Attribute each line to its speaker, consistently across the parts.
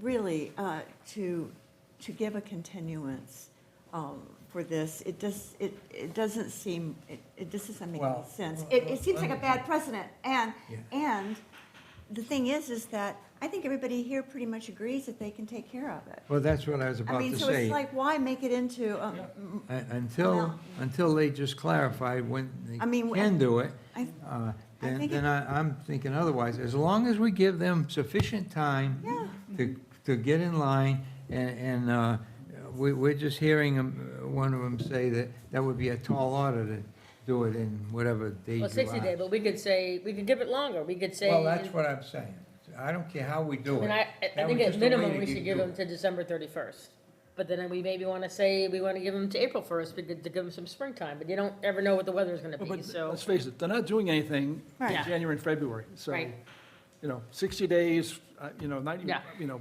Speaker 1: really, uh, to, to give a continuance um, for this, it just, it, it doesn't seem, it, it just doesn't make any
Speaker 2: Well-
Speaker 1: sense. It, it seems like a bad precedent, and,
Speaker 2: Yeah.
Speaker 1: and the thing is, is that I think everybody here pretty much agrees that they can take care of it.
Speaker 2: Well, that's what I was
Speaker 1: I
Speaker 2: about
Speaker 1: mean,
Speaker 2: to
Speaker 1: so it's
Speaker 2: say.
Speaker 1: like, why make it into, um,
Speaker 2: Un- Until,
Speaker 1: Well-
Speaker 2: until they just clarify when they
Speaker 1: I mean,
Speaker 2: can do it,
Speaker 1: I,
Speaker 2: uh,
Speaker 1: I
Speaker 2: then,
Speaker 1: think
Speaker 2: then I, I'm thinking otherwise. As long as we give them sufficient time
Speaker 1: Yeah.
Speaker 2: to, to get in line, and, and, uh, we, we're just hearing 'em, uh, one of them say that that would be a tall order to do it in whatever day you
Speaker 3: Well, sixty day,
Speaker 2: are.
Speaker 3: but we could say, we could give it longer, we could say.
Speaker 2: Well, that's what I'm saying. I don't care how we do
Speaker 3: I mean,
Speaker 2: it.
Speaker 3: I, I
Speaker 2: That was
Speaker 3: think at
Speaker 2: just a way
Speaker 3: minimum,
Speaker 2: to
Speaker 3: we
Speaker 2: get
Speaker 3: should give
Speaker 2: do
Speaker 3: them
Speaker 2: it.
Speaker 3: to December thirty-first. But then we maybe wanna say, we wanna give them to April first, to give them some springtime, but you don't ever know what the weather's gonna
Speaker 4: Well,
Speaker 3: be,
Speaker 4: but
Speaker 3: so.
Speaker 4: Let's face it, they're not doing anything in
Speaker 3: Right.
Speaker 4: January and February, so,
Speaker 3: Right.
Speaker 4: you know, 60 days, uh, you know, 90,
Speaker 3: Yeah.
Speaker 4: you know,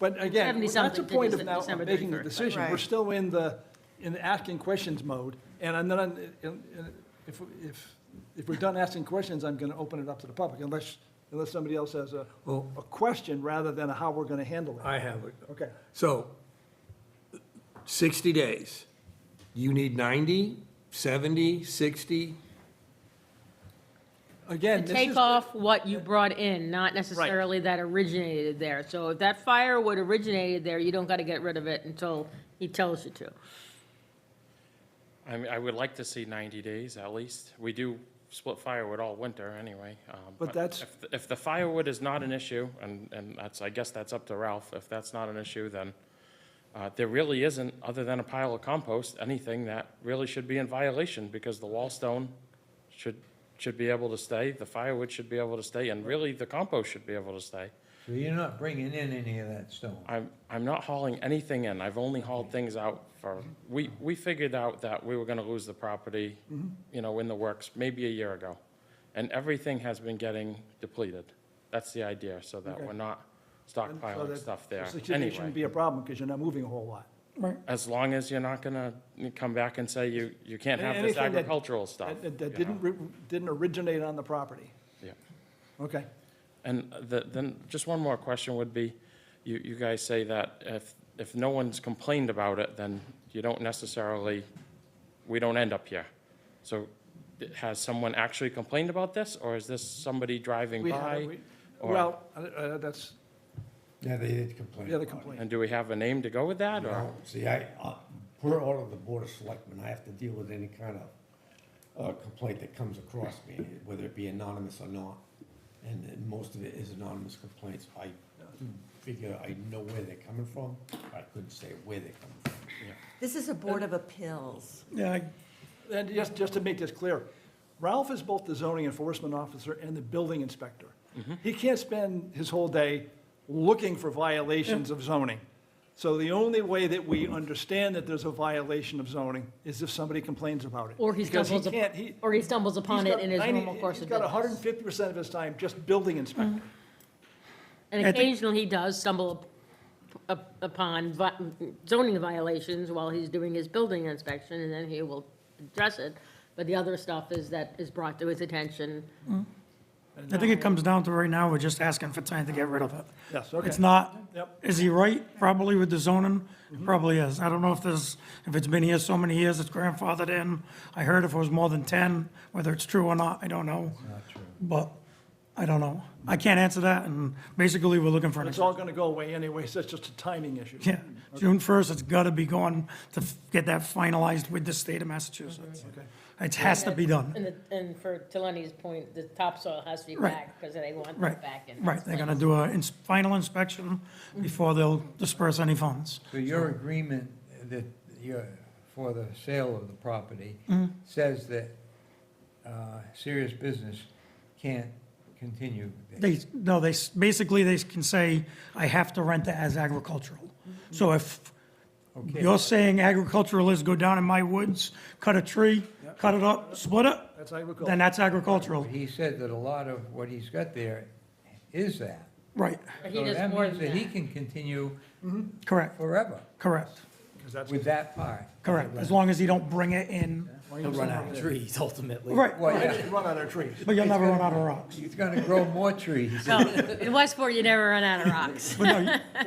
Speaker 4: but again, that's
Speaker 3: 70-something
Speaker 4: the point of
Speaker 3: to
Speaker 4: now of
Speaker 3: December
Speaker 4: making the
Speaker 3: 31st,
Speaker 4: decision. We're
Speaker 1: Right.
Speaker 4: still in the, in the asking questions mode, and I'm not, and- and if, if, if we're done asking questions, I'm going to open it up to the public, unless, unless somebody else has a,
Speaker 2: Well-
Speaker 4: a question rather than a how we're going to handle it.
Speaker 5: I have it.
Speaker 4: Okay,
Speaker 5: So, 60 days. You need 90, 70, 60?
Speaker 4: again,
Speaker 3: To
Speaker 4: this
Speaker 3: take
Speaker 4: is-
Speaker 3: off what you brought in, not necessarily that originated there. So if that firewood originated there, you don't gotta get rid of it until he tells you to.
Speaker 6: I mean, I would like to see 90 days at least. We do split firewood all winter anyway. um,
Speaker 4: that's-
Speaker 6: if the- If the firewood is not an issue, and, and that's, I guess that's up to Ralph, if that's not an issue, then uh, there really isn't, other than a pile of compost, anything that really should be in violation because the wall stone should, should be able to stay, the firewood should be able to stay, and really the compost should be able to stay.
Speaker 2: So you're not bringing in any of that stone.
Speaker 6: I'm, I'm not hauling anything in. I've only
Speaker 4: Mm-hmm.
Speaker 6: hauled things out for, we, we figured out that we were gonna lose the property,
Speaker 4: Mm-hmm.
Speaker 6: you know, in the works, maybe a year ago. And everything has been getting depleted. That's the idea, so that we're not
Speaker 4: so
Speaker 6: stockpiling
Speaker 4: that-
Speaker 6: stuff there
Speaker 4: 60 days shouldn't
Speaker 6: anyway.
Speaker 4: be a problem, because you're not moving a whole lot.
Speaker 6: As long as you're not gonna come back and say you, you can't have this
Speaker 4: Anything that-
Speaker 6: agricultural stuff.
Speaker 4: That- That
Speaker 6: you
Speaker 4: that
Speaker 6: know?
Speaker 4: didn't, ri- didn't originate on the property.
Speaker 6: Yeah.
Speaker 4: Okay.
Speaker 6: And the, then, just one more question would be, you, you guys say that if, if no one's complained about it, then you don't necessarily, we don't end up here. So d- has someone actually complained about this, or is this somebody driving
Speaker 4: We had-
Speaker 6: by?
Speaker 4: we-
Speaker 6: or-
Speaker 4: Well, uh, uh, that's
Speaker 7: Yeah, they did complain.
Speaker 4: the other
Speaker 7: about it.
Speaker 4: complaint.
Speaker 6: And do we have a name to go with that, or?
Speaker 7: No, See, I, uh, we're all of the Board of Selectmen, I have to deal with any kind of uh, complaint that comes across me, whether it be anonymous or not. And and most of it is anonymous complaints. I figure I know where they're coming from, but I couldn't say where they're coming from.
Speaker 1: this is a board of appeals.
Speaker 7: Yeah.
Speaker 4: And just, just to make this clear, Ralph is both the zoning enforcement officer and the building inspector.
Speaker 6: Mm-hmm.
Speaker 4: He can't spend his whole day looking for violations of zoning. So the only way that we understand that there's a violation of zoning is if somebody complains about it.
Speaker 3: Or he
Speaker 4: Because
Speaker 3: stumbles, up-
Speaker 4: can't- he-
Speaker 3: or he stumbles upon
Speaker 4: he's
Speaker 3: it
Speaker 4: got
Speaker 3: in his
Speaker 4: 90
Speaker 3: normal course of
Speaker 4: He's got hundred
Speaker 3: business.
Speaker 4: and fifty percent of his time just building inspector.
Speaker 3: And occasionally he does stumble up- up- upon vi- zoning violations while he's doing his building inspection, and then he will address it. But the other stuff is that is brought to his attention.
Speaker 8: I think it comes down to right now, we're just asking for time to get rid of it.
Speaker 4: Yes, okay.
Speaker 8: It's not,
Speaker 4: Yep.
Speaker 8: is he right? Probably with the zoning, probably is. I don't know if there's, if it's been here so many years, it's grandfathered in. I heard if it was more than ten, whether it's true or not, I don't know. not true. But, I don't know. I can't answer that, and basically, we're looking for an
Speaker 4: It's all gonna go away anyway, so it's just a timing issue.
Speaker 8: Yeah, June first, it's gotta be going to f- get that finalized with the state of Massachusetts. It has to be done.
Speaker 3: And, the- and for, to Lenny's point, the topsoil has to be
Speaker 8: Right.
Speaker 3: back, because they want
Speaker 8: Right,
Speaker 3: that back in.
Speaker 8: right, they're gonna do a ins- final inspection before they'll disperse any funds.
Speaker 2: So your agreement that you're, for the sale of the property
Speaker 8: Mm-hmm.
Speaker 2: says that uh, serious business can't continue. there.
Speaker 8: They, no, they, s- basically, they can say, I have to rent it as agricultural. So if
Speaker 2: Okay.
Speaker 8: you're saying agricultural is go down in my woods, cut a tree, cut it up, split it,
Speaker 4: That's agriculture.
Speaker 8: then that's agricultural,
Speaker 2: But He said that a lot of what he's got there is that.
Speaker 8: right,
Speaker 3: But he
Speaker 2: So
Speaker 3: does
Speaker 2: that
Speaker 3: more
Speaker 2: means
Speaker 3: than
Speaker 2: He
Speaker 3: that.
Speaker 2: can continue
Speaker 8: correct,
Speaker 2: forever
Speaker 8: correct,
Speaker 4: 'Cause that's-
Speaker 2: with that part.
Speaker 8: correct, as long as you don't bring it in,
Speaker 7: They'll run out of trees ultimately.
Speaker 8: right,
Speaker 2: Well, yeah,
Speaker 4: Run out of trees.
Speaker 8: but you'll never run out of rocks.
Speaker 2: he's gonna grow more trees.
Speaker 3: So, in Westport, you never run out of rocks.
Speaker 8: But no, you-